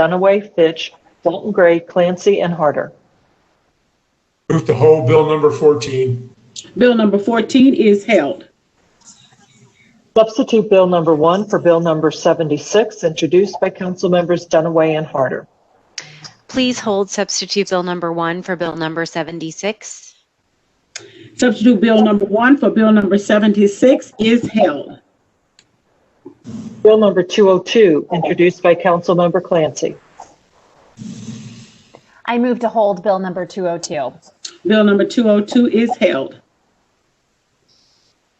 Dunaway, Fitch, Dalton Gray, Clancy, and Harder. Move to hold Bill number 14. Bill number 14 is held. Substitute Bill Number 1 for Bill Number 76, introduced by Councilmembers Dunaway and Harder. Please hold substitute bill number one for bill number 76. Substitute Bill number 1 for Bill number 76 is held. Bill Number 202, introduced by Councilmember Clancy. I move to hold Bill number 202. Bill number 202 is held.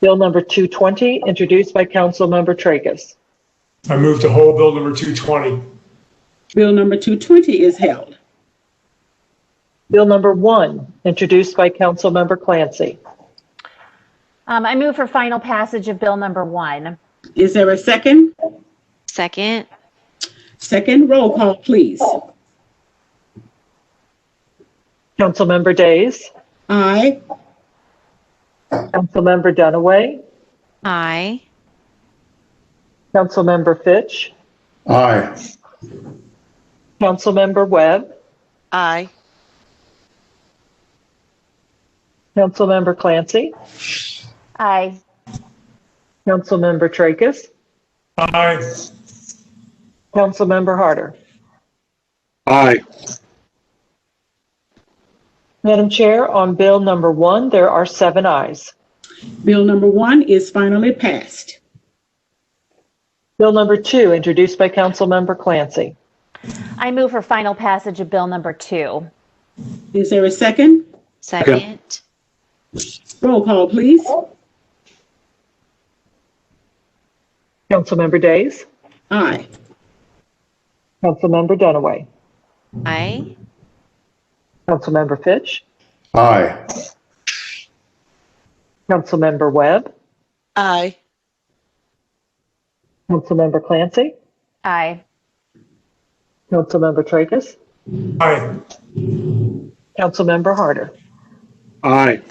Bill Number 220, introduced by Councilmember Tracus. I move to hold Bill number 220. Bill number 220 is held. Bill Number 1, introduced by Councilmember Clancy. Um, I move for final passage of Bill number 1. Is there a second? Second, Second roll call, please. Councilmember Days, Aye. Councilmember Dunaway, aye. Councilmember Fitch, Aye. Councilmember Webb, Aye. Councilmember Clancy, Aye. Councilmember Tracus, Aye. Councilmember Harder. Aye. Madam Chair, on Bill Number 1, there are seven ayes. Bill number 1 is finally passed. Bill Number 2, introduced by Councilmember Clancy. I move for final passage of Bill number 2. Is there a second? Second, Roll call, please. Councilmember Days, Aye. Councilmember Dunaway, aye. Councilmember Fitch, Aye. Councilmember Webb, Aye. Councilmember Clancy, Aye. Councilmember Tracus, Aye. Councilmember Harder. Aye.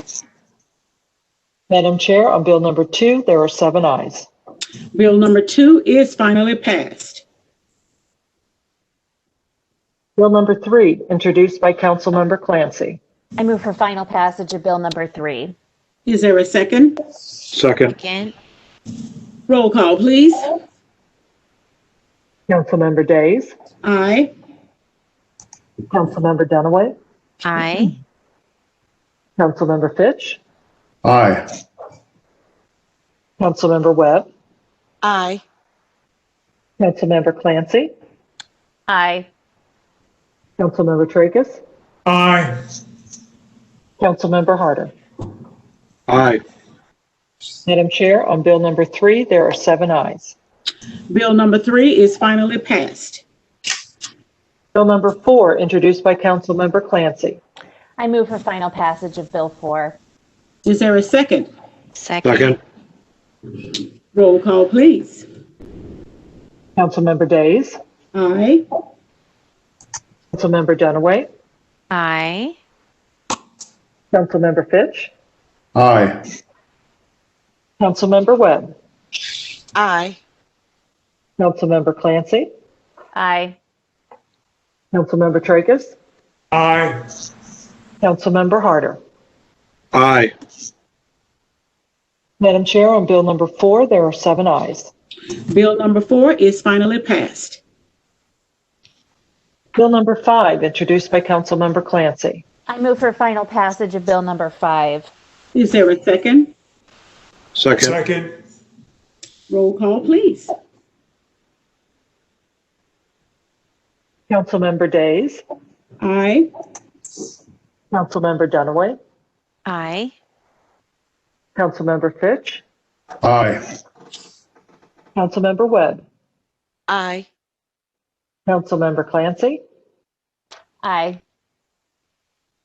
Madam Chair, on Bill Number 2, there are seven ayes. Bill number 2 is finally passed. Bill Number 3, introduced by Councilmember Clancy. I move for final passage of Bill number 3. Is there a second? Second. Second, Roll call, please. Councilmember Days, Aye. Councilmember Dunaway, aye. Councilmember Fitch, Aye. Councilmember Webb, Aye. Councilmember Clancy, Aye. Councilmember Tracus, Aye. Councilmember Harder. Aye. Madam Chair, on Bill Number 3, there are seven ayes. Bill number 3 is finally passed. Bill Number 4, introduced by Councilmember Clancy. I move for final passage of Bill 4. Is there a second? Second, Second. Roll call, please. Councilmember Days, Aye. Councilmember Dunaway, aye. Councilmember Fitch, Aye. Councilmember Webb, Aye. Councilmember Clancy, Aye. Councilmember Tracus, Aye. Councilmember Harder. Aye. Madam Chair, on Bill Number 4, there are seven ayes. Bill number 4 is finally passed. Bill Number 5, introduced by Councilmember Clancy. I move for final passage of Bill number 5. Is there a second? Second. Second. Roll call, please. Councilmember Days, Aye. Councilmember Dunaway, Aye. Councilmember Fitch, Aye. Councilmember Webb, Aye. Councilmember Clancy, Aye.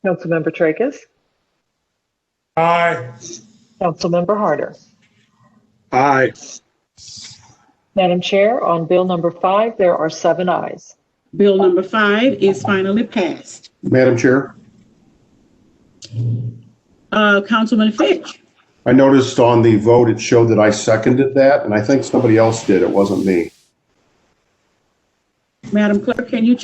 Councilmember Tracus, Aye. Councilmember Harder. Aye. Madam Chair, on Bill Number 5, there are seven ayes. Bill number 5 is finally passed. Madam Chair, Uh, Councilman Fitch. I noticed on the vote, it showed that I seconded that, and I think somebody else did. It wasn't me. Madam Clerk, can you